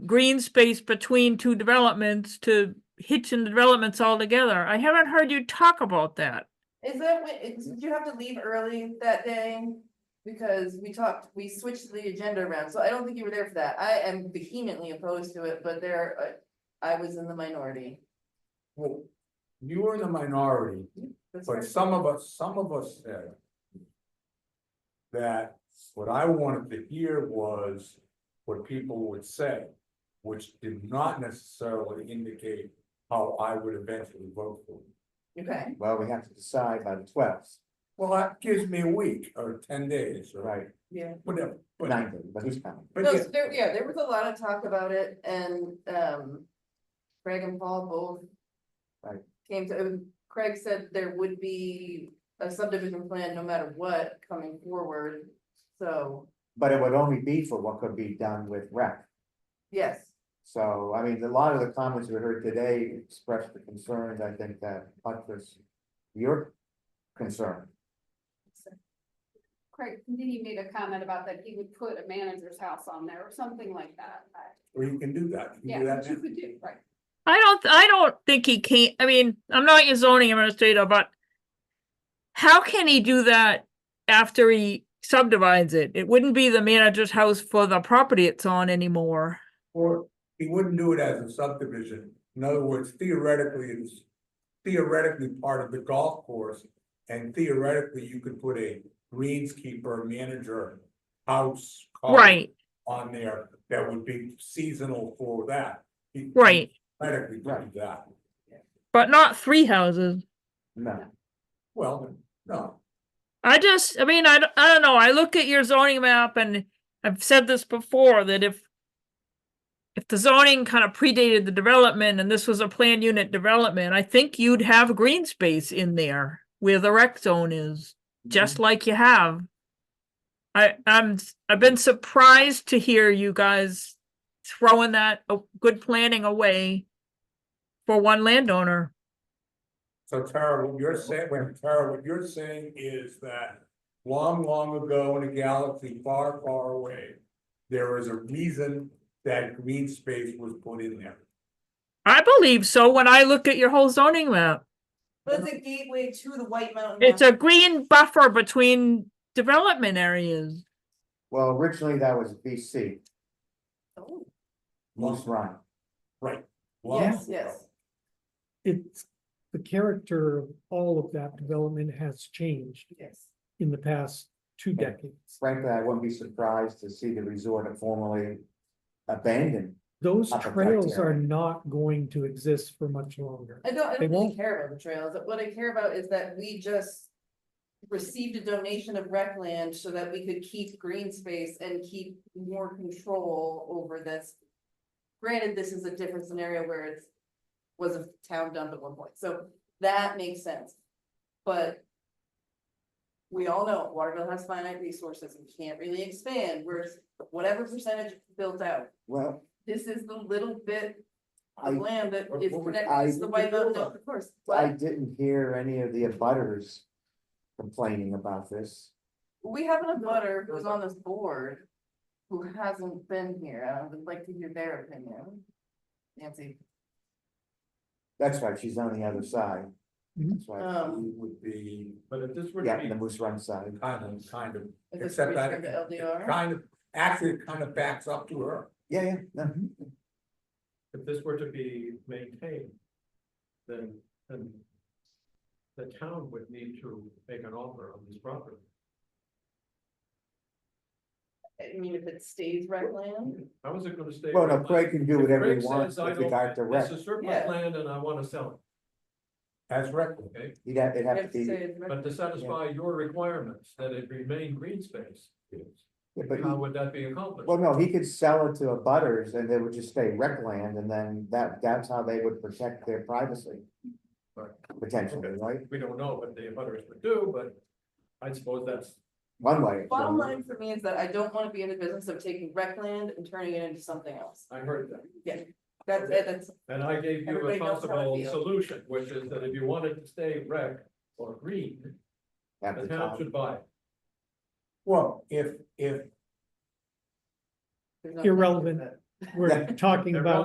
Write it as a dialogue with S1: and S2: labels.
S1: green space between two developments to hitching the developments all together. I haven't heard you talk about that.
S2: Is that, when- is- did you have to leave early that day? Because we talked, we switched the agenda around, so I don't think you were there for that. I am vehemently opposed to it, but there, uh, I was in the minority.
S3: Well, you were in the minority,
S2: That's
S3: but
S2: right.
S3: some of us, some of us said. That what I wanted to hear was what people would say, which did not necessarily indicate how I would eventually vote for. it.
S2: Okay,
S4: Well, we have to decide by the twelfth,
S3: Well, that gives me a week or ten days or
S4: right,
S2: yeah.
S3: whatever, but,
S4: nine days, but who's counting?
S3: but
S2: No,
S3: yeah,
S2: so there, yeah, there was a lot of talk about it and, um, Craig and Paul both.
S4: Right.
S2: Came to, and Craig said there would be a subdivision plan no matter what coming forward, so,
S4: But it would only be for what could be done with rec.
S2: yes.
S4: So, I mean, a lot of the comments we heard today expressed the concerns, I think, that buttress your concern.
S5: Craig, did he made a comment about that he would put a manager's house on there or something like that? I-
S3: or you can do that, you can
S5: Yeah,
S3: do that
S5: which you
S3: now.
S5: could do, right?
S1: I don't, I don't think he can, I mean, I'm not your zoning administrator, but how can he do that after he subdivides it? It wouldn't be the manager's house for the property it's on anymore.
S3: Or he wouldn't do it as a subdivision, in other words theoretically, it's theoretically part of the golf course. And theoretically, you could put a greenskeeper, manager, house. car
S1: Right,
S3: On there that would be seasonal for that. He- he
S1: right,
S3: Theoretically, do that,
S1: but not three houses.
S4: No,
S3: well, no,
S1: I just, I mean, I, d- I don't know. I look at your zoning map and I've said this before that if if the zoning kind of predated the development and this was a planned unit development, I think you'd have green space in there where the rec zone is, just like you have. I, I'm, s- I've been surprised to hear you guys throwing that uh, good planning away for one landowner.
S3: so Tara, what you're saying, wait, Tara, what you're saying is that. Long, long ago in a galaxy far, far away, there is a reason that green space was put in there.
S1: I believe so when I look at your whole zoning map.
S2: But it's a gateway to the White Mountain.
S1: It's a green buffer between development areas.
S4: well, originally that was BC,
S2: Oh,
S4: Moose Run.
S3: Long
S2: Yes,
S3: ago.
S2: yes.
S6: it's, the character of all of that development has changed
S2: Yes.
S6: in the past two
S4: Yeah.
S6: decades.
S4: Frankly, I wouldn't be surprised to see the resort formally abandoned.
S6: Those
S4: Upper back
S6: trails are
S4: area.
S6: not going to exist for much longer.
S2: I don't, I
S6: They
S2: don't really
S6: won't-
S2: care about the trails, what I care about is that we just. Received a donation of rec land so that we could keep green space and keep more control over this. Granted, this is a different scenario where it's. Was a town dump at one point, so that makes sense, but. We all know Waterville has finite resources, we can't really expand, we're whatever percentage built out.
S4: Well,
S2: This is the little bit
S4: I-
S2: of land that
S3: Or
S2: is
S3: what would-
S2: connected
S4: I-
S2: to the White Mountain, of course.
S4: I didn't hear any of the abutters complaining about this.
S2: We have an abutter who's on this board who hasn't been here. I would like to hear their opinion. Nancy,
S4: That's right, she's on the other side.
S6: Mhm.
S4: That's right,
S2: Um,
S3: It would be, but if this were to
S4: yeah, the
S3: be
S4: Moose Run side.
S3: kind of, kind of,
S2: is this
S3: except I,
S2: return to LDR?
S3: kind of, actually it kind of backs up to her.
S4: Yeah, yeah, no,
S7: if this were to be maintained, then, then the town would need to make an offer on this property.
S2: I mean, if it stays rec land,
S7: How is it gonna stay?
S4: well, no,
S7: vacant?
S4: Craig can do
S7: If
S4: whatever
S7: Craig
S4: he wants
S7: says, "I
S4: with
S7: don't-
S4: regard to rec,
S7: It's a surplus
S2: Yeah.
S7: land and I wanna sell
S3: As record.
S7: it, okay?
S4: he'd have, it'd
S2: you
S4: have to
S2: have to
S4: be,
S2: say
S4: yeah,
S2: it's rec-
S7: But to satisfy your requirements, that it remain green space,
S4: but,
S7: how
S4: he-
S7: would that be accomplished?
S4: well, no, he could sell it to a butters and they would just stay rec land and then that, that's how they would protect their privacy.
S7: Right.
S4: Potentially,
S7: Okay.
S4: right?
S7: We don't know what the abutters would do, but I suppose that's,
S4: One way.
S2: Bottom line for me is that I don't want to be in the business of taking rec land and turning it into something else.
S7: I heard that.
S2: That's,
S7: Okay.
S2: that's,
S7: And I gave you
S2: Everybody
S7: a
S2: knows how I
S7: possible
S2: feel.
S7: solution, which is that if you wanted to stay rec or green,
S4: at
S7: the
S4: the
S7: town
S4: time.
S7: should buy it.
S3: Well, if, if,
S2: there's nothing-
S6: Irrelevant we're talking about